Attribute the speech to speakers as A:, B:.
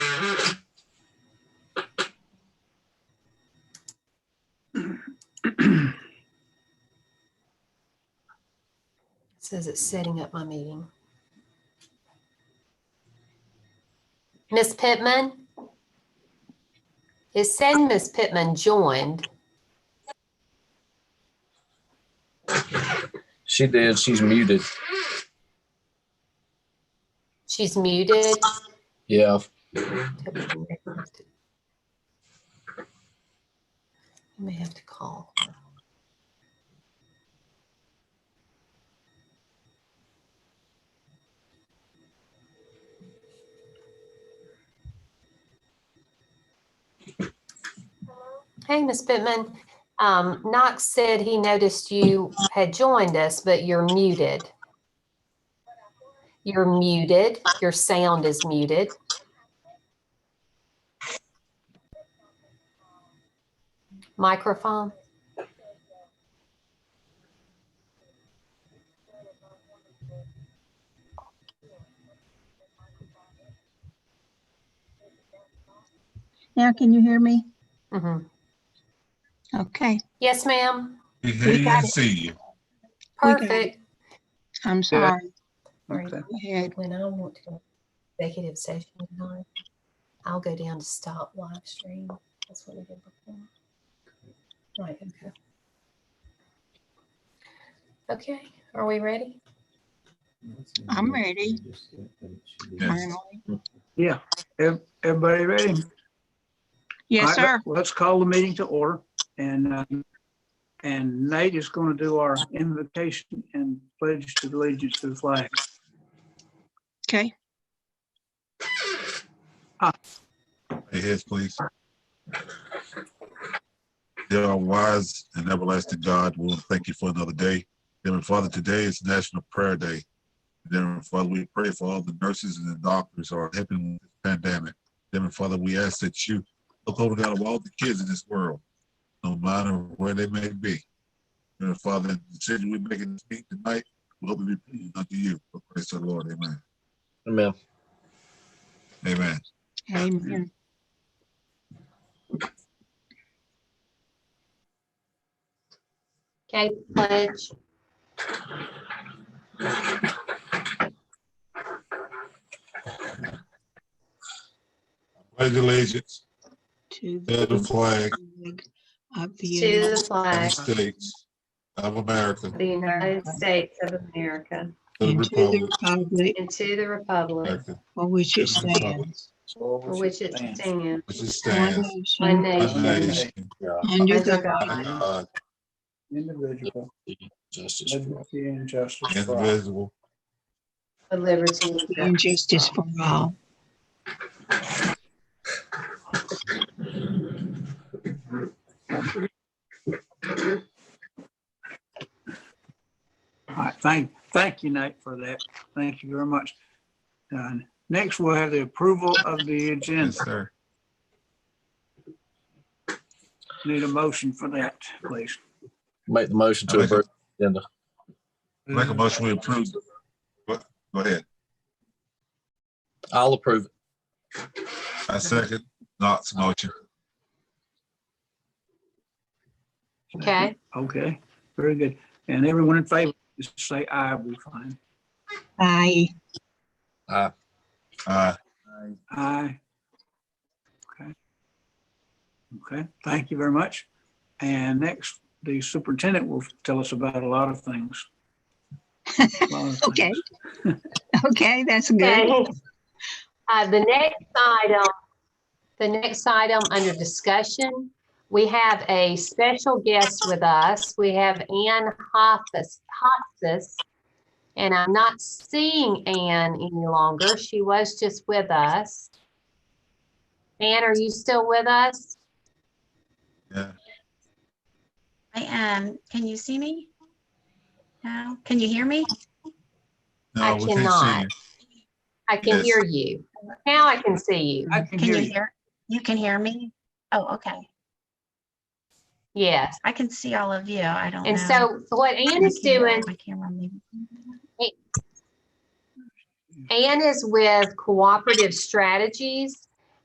A: Says it's setting up my meeting. Miss Pittman? It said Miss Pittman joined.
B: She did. She's muted.
A: She's muted.
B: Yeah.
A: You may have to call. her. Hey, Miss Pittman, um, Knox said he noticed you had joined us, but you're muted. You're muted. Your sound is muted. Microphone?
C: Now can you hear me?
A: Mhm.
C: Okay,
A: Yes, ma'am.
D: We hear you
C: got
D: and see you.
C: We got it.
A: Perfect.
C: I'm sorry.
A: Right.
C: Go ahead.
A: When I want to go executive session, tonight, I'll go down to stop live stream. That's what we did before. Right, okay. Okay, are we ready?
C: I'm ready.
D: Yes.
C: Finally.
E: Ev- Everybody ready?
C: Yes,
E: All right,
C: sir.
E: let- Let's call the meeting to order and, uh, and Nate is going to do our invocation and pledge to allegiance to the flag.
C: Okay.
D: Hey, heads, please. Dear our wise and everlasting God, we want to thank you for another day. Heavenly Father, today is National Prayer Day. Heavenly Father, we pray for all the nurses and the doctors who are helping with this pandemic. Heavenly Father, we ask that you look over God of all the kids in this world, no matter where they may be. Heavenly Father, the decision we make in this meeting tonight, we hope it be pleasing unto you. For Christ our Lord, amen.
B: Amen.
D: Amen.
C: Amen.
A: Okay, pledge.
D: Pledge allegiance
C: To
D: To the flag.
C: flag Of
F: To
C: the United
F: the flag
D: United States of America,
F: of the United States of America
D: the
C: and to the
D: Republic
C: republic
F: and to the republic
D: America,
C: for which it
D: It's the republic.
C: stands,
F: for which it stands,
D: which it
C: one
D: stands,
F: one
C: nation,
D: one
F: nation,
D: nation, Uh,
C: under
F: under
C: the
D: under
F: God,
D: God,
E: Individual,
B: Justice. for
E: liberty and justice for all.
D: indivisible.
F: for liberty and
C: and justice for all.
E: All right, thank, thank you, Nate, for that. Thank you very much. Uh, Next, we'll have the approval of the
D: Yes,
E: agenda.
D: sir.
E: Need a motion for that, please.
B: Make the motion to
D: I make a-
B: approve the agenda.
D: Make a motion we approve. Go go ahead.
B: I'll approve it.
D: I second Knox motion.
A: Okay,
E: Okay, very good. And everyone in favor, just say aye, we're fine.
C: Aye.
D: Uh,
E: Aye. Okay. Okay, thank you very much. And next, the superintendent will tell us about a lot of things. A lot of
C: Okay.
E: things.
C: Okay, that's good.
A: okay. Uh, the next item, the next item under discussion, we have a special guest with us. We have Ann Hoffus, Hoffus. And I'm not seeing Ann any longer. She was just with us. Ann, are you still with us?
D: yeah,
G: I am. Can you see me? Now, can you hear me?
D: no,
A: I
D: we
A: cannot.
D: can't
A: I can
D: Yes.
A: hear you. Now I can see you.
E: I can
G: Can
E: hear
G: you
E: you.
G: hear? You can hear me? Oh, okay.
A: Yes.
G: I can see all of you. I don't know.
A: And so what Ann
G: My
A: is
G: camera-
A: doing
G: My camera maybe.
A: Ann is with Cooperative Strategies,